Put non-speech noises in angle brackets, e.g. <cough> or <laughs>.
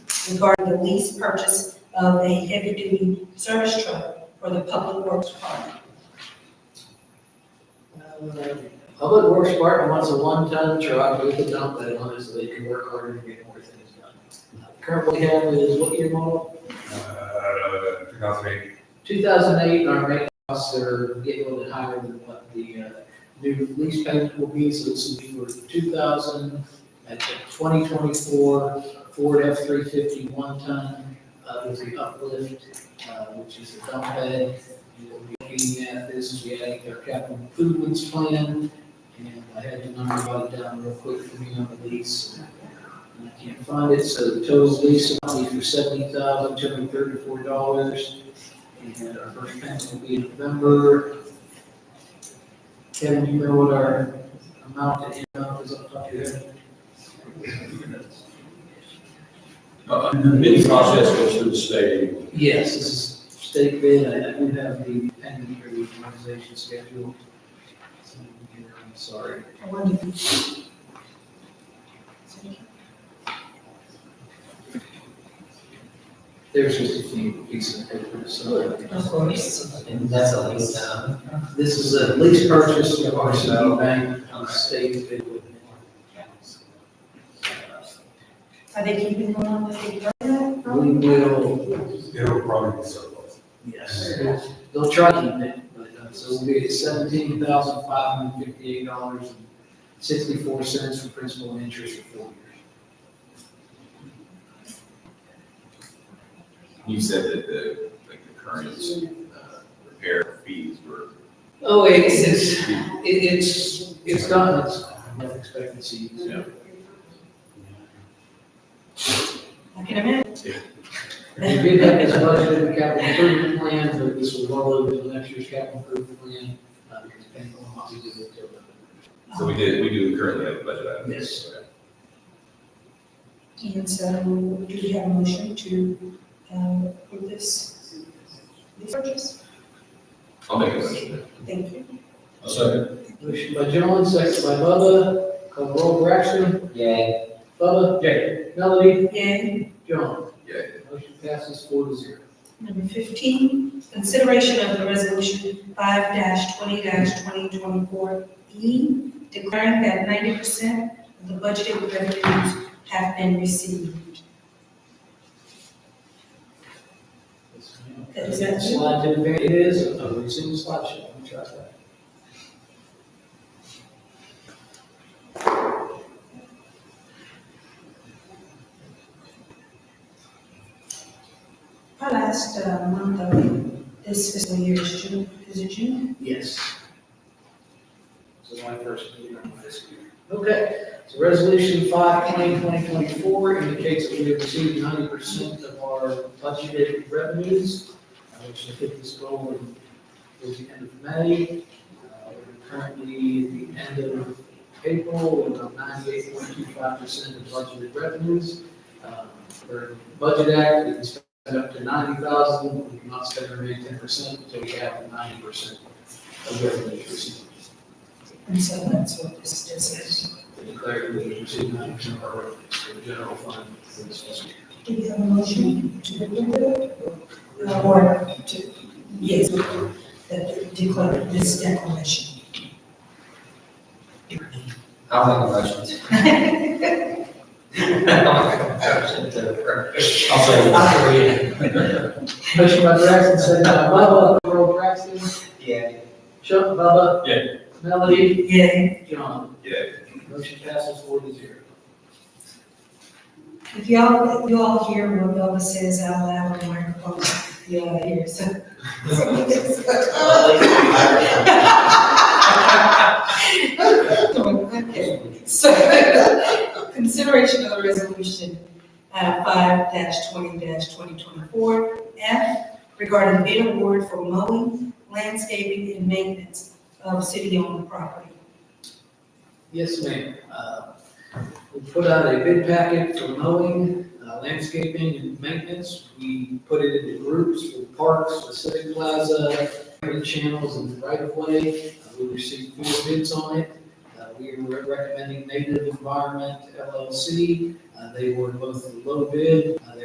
regarding the lease purchase of a heavy-duty service truck for the Public Works Department. Public Works Department wants a one-ton truck, we can dump that on it so they can work harder to get more things done. Currently have is what year model? Uh, 2008, Two thousand eight, our main costs are getting a little bit higher than what the, uh, new lease payment will be, so this will be for two thousand, at the twenty twenty-four Ford F three fifty one-ton, uh, with the uplift, uh, which is a dump bed. And We'll be looking at this, as we add our capital improvements plan, and I had the number jotted down real quick for me on the lease. And I can't find it, so the total lease amount is for seventy thousand, two hundred thirty-four dollars. And our first payment will be in November. Kevin, do you know what our amount to end up is up top of your head? Uh, The bidding process goes through the state anyway. Yes, this is state bid, I I do have the pending for the organization schedule. So, I'm Sorry. I wonder if you- There's just a few pieces of paper, so. Of course. And that's a lease, um, this is a lease purchase of RCB Bank on the state bid. Are they keeping on with the program? We will, it'll probably be surplus. yes, they'll try to keep it, but, uh, so we'll be at seventeen thousand five hundred fifty-eight dollars and sixty-four cents for principal and interest for four years. You said that the, like, the current, uh, repair fees were, Oh, it's, it's, it- it's, it's done, it's life expectancy, you know, I can imagine. We did have this budget in the capital improvement plan, but this will roll over to next year's capital improvement plan, uh, depending on what we do with it. so we did, we do currently have a budget item. Yes. Okay. And so do we have a motion to um, approve this, this purchase? I'll make a motion. Thank you. I'll second. Motion by John, second by Bubba, call roll for action, Yay. Bubba. Yay. Melody. Yay. John. Yeah. Motion passes four to zero. Number 15, consideration of the resolution 5-20-2024E, E, declaring that 90% of the budgeted revenues have been received. That is it. Slide to advance, it is, oh, we've seen the slideshow, let me try that. Our last uh, month of this fiscal year is June, is it June? Yes. This is my first meeting on this year. Okay, so resolution five twenty twenty twenty-four indicates that we have received ninety percent of our budgeted revenues. uh, Which should hit this goal in, towards the end of May. Uh, We're currently at the end of April, we're about ninety-eight point two five percent of budgeted revenues. Um, For Budget Act, we can spend up to ninety thousand, we cannot spend or make ten percent until we have ninety percent of revenue received. And so that's what this is. I Declare we received ninety percent of our revenues for the general fund for this fiscal year. Do we have a motion to approve it? Or to, yes, that declare this declaration. I'll make a motion. <laughs> I'll second. Motion by Braxton, second by Bubba, Earl Braxton, Yeah. Chuck, Bubba. Yeah. Melody, Yay. John. Yeah. Motion passes four to zero. If y'all, you all hear what Bubba says out loud in the microphone, you all hear, so. Okay, So, consideration of the resolution, uh, five twenty twenty twenty-four F regarding bid award for mowing, landscaping, and maintenance of city-owned property. Yes, ma'am. Uh, We put out a bid packet for mowing, uh, landscaping and maintenance. We put it into groups for parks, the civic plaza, green channels and right of way. Uh, We received four bids on it. Uh, We were recommending Native Environment LLC. Uh, They were both the low bid. Uh, they